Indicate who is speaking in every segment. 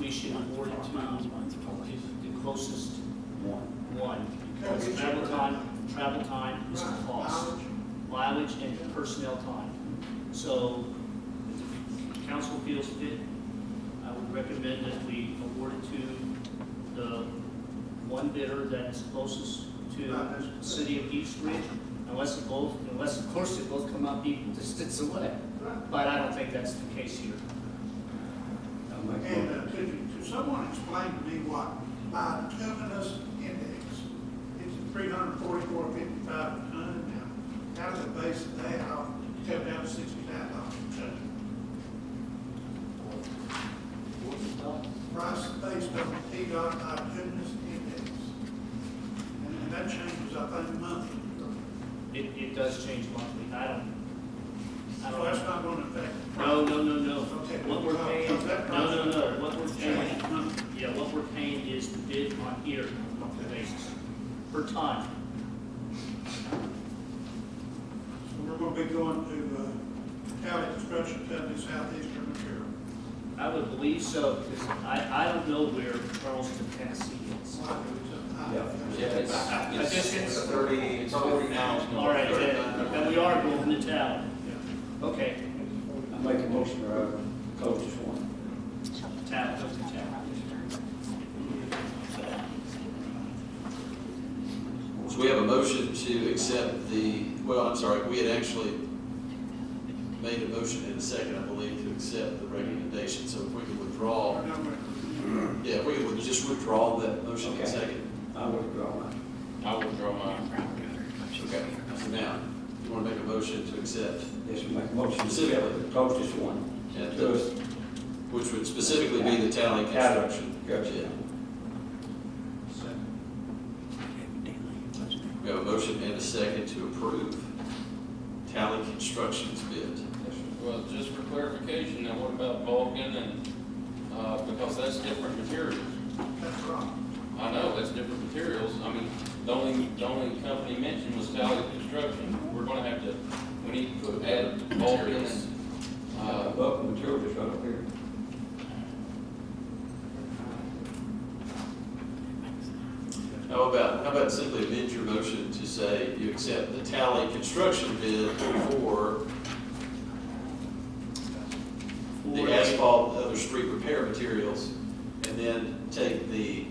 Speaker 1: we should board to the closest one, because
Speaker 2: Okay.
Speaker 1: travel time, travel time is a cost. Mileage and personnel time. So if the council feels fit, I would recommend that we award it to the one bidder that's closest to the city of East Ridge, unless it both, unless of course it both come out equal distance away. But I don't think that's the case here.
Speaker 2: And uh, could you, could someone explain to me what bituminous index? It's three hundred forty-four fifty-five a ton now. How does it base of that off, come down to sixty-nine dollars a ton? Price is based on the T dot bituminous index. And and that changes, I think, monthly.
Speaker 1: It, it does change monthly, I don't, I
Speaker 2: So that's
Speaker 1: don't.
Speaker 2: not going to affect. the
Speaker 1: No, no, no, no,
Speaker 2: Okay.
Speaker 1: what we're paying, no, no, no, what we're paying, yeah, what we're paying is the bid on here, on a monthly basis, per ton.
Speaker 2: So We're gonna be going to, uh, Tally Construction Company, Southeastern Material.
Speaker 1: I would believe so, because I, I don't know where Charleston, Tennessee is.
Speaker 2: Why do we took- I-
Speaker 3: Yeah, it's, it's thirty, it's forty miles.
Speaker 1: All right, then, then we are going to town,
Speaker 2: Yeah.
Speaker 1: okay,
Speaker 4: I make a motion to uh, close this one.
Speaker 1: town, go to town.
Speaker 3: So we have a motion to accept the, well, I'm sorry, we had actually made a motion in a second, I believe, to accept the recommendation, so if we could withdraw,
Speaker 2: Our number-
Speaker 3: yeah, if we could just withdraw that motion in a
Speaker 4: Okay.
Speaker 3: second.
Speaker 4: I withdraw mine.
Speaker 3: I withdraw mine. Okay, so now, you want to make a motion to accept,
Speaker 4: Yes, we make a motion
Speaker 3: Specifically.
Speaker 4: to close this one.
Speaker 3: Yeah,
Speaker 4: To
Speaker 3: the-
Speaker 4: us,
Speaker 3: which would specifically be the tally construction.
Speaker 4: Gotcha.
Speaker 3: We have a motion and a second to approve tally construction's bid.
Speaker 4: Yes, sir.
Speaker 5: Well, just for clarification, now what about Vulcan and, uh, because that's different materials.
Speaker 2: That's wrong.
Speaker 5: I know, that's different materials. I mean, the only, the only company mentioned was Tally Construction. We're gonna have to, we need to add Vulcan and,
Speaker 4: Uh,
Speaker 5: uh,
Speaker 4: Buck Material is right up here.
Speaker 3: How about, how about simply amend your motion to say you accept the tally construction bid for the asphalt and other street repair materials, and then take the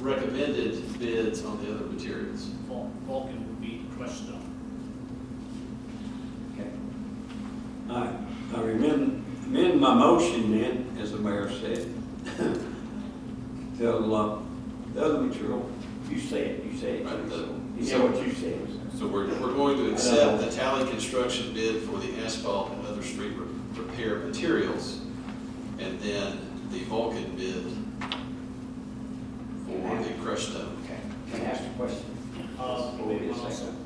Speaker 3: recommended bids on the other materials.
Speaker 1: Vul- Vulcan would be crushed stone.
Speaker 4: Okay. I, I remember, amend my motion then, as the mayor said. Tell uh, the other material, you said, you said.
Speaker 3: Right, the-
Speaker 4: You said what you said.
Speaker 3: So we're, we're going to accept the tally construction bid for the asphalt and other street re- repair materials, and then the Vulcan bid for the crushed stone.
Speaker 4: Okay. Can I ask a question?
Speaker 1: Uh,
Speaker 4: Hold
Speaker 1: we
Speaker 4: it a
Speaker 1: would also,
Speaker 4: second.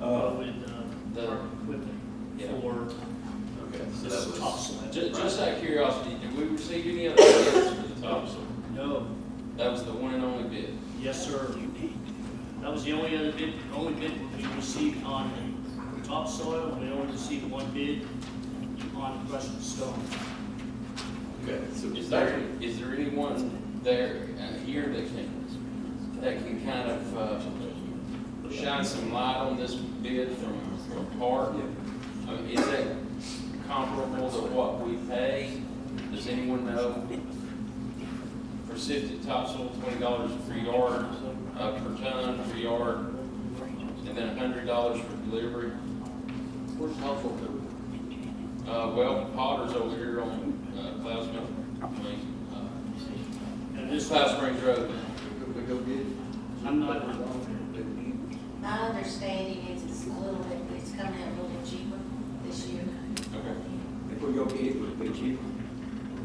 Speaker 1: uh,
Speaker 4: Uh,
Speaker 1: with, uh,
Speaker 5: The-
Speaker 1: our equipment
Speaker 4: Yeah.
Speaker 1: for
Speaker 3: Okay, so that
Speaker 1: this
Speaker 3: was.
Speaker 1: topsoil.
Speaker 5: ju- just out of curiosity, did we receive any other bids for the topsoil?
Speaker 1: No,
Speaker 5: That was the one and only bid.
Speaker 1: yes, sir. That was the only other bid, only bid we received on the topsoil, and we only received one bid on crushed stone.
Speaker 3: Okay, so
Speaker 5: Is there, is there anyone there, uh, here that can, that can kind of, uh, shine some light on this bid from, from Park? I mean, Is that comparable to what we pay? Does anyone know? For sifted topsoil, twenty dollars per yard, uh, per ton, per yard, and then hundred dollars for delivery. Where's helpful Uh, well, Potter's over here on, uh, Cloud Springs, I mean,
Speaker 1: And
Speaker 5: uh,
Speaker 1: this,
Speaker 5: Cloud Springs Road.
Speaker 1: I'm not,
Speaker 6: My understanding is it's a little bit, it's coming out a little bit cheaper this year.
Speaker 5: Okay.
Speaker 4: if we go get it, would it be cheaper?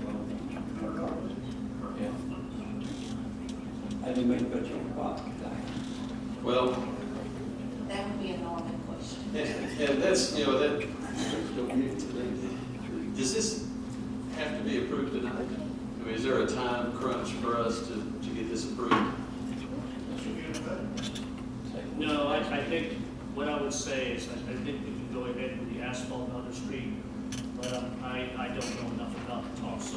Speaker 4: eh,
Speaker 5: Yeah.
Speaker 4: I didn't mean to put you on the spot.
Speaker 3: Well,
Speaker 6: That would be a normal question.
Speaker 3: and, and that's, you know, that, does this have to be approved tonight? I mean, is there a time crunch for us to, to get this approved?
Speaker 2: That's a good thing.
Speaker 1: no, I, I think, what I would say is, I, I think we can go ahead with the asphalt and other street, but um, I, I don't know enough about the topsoil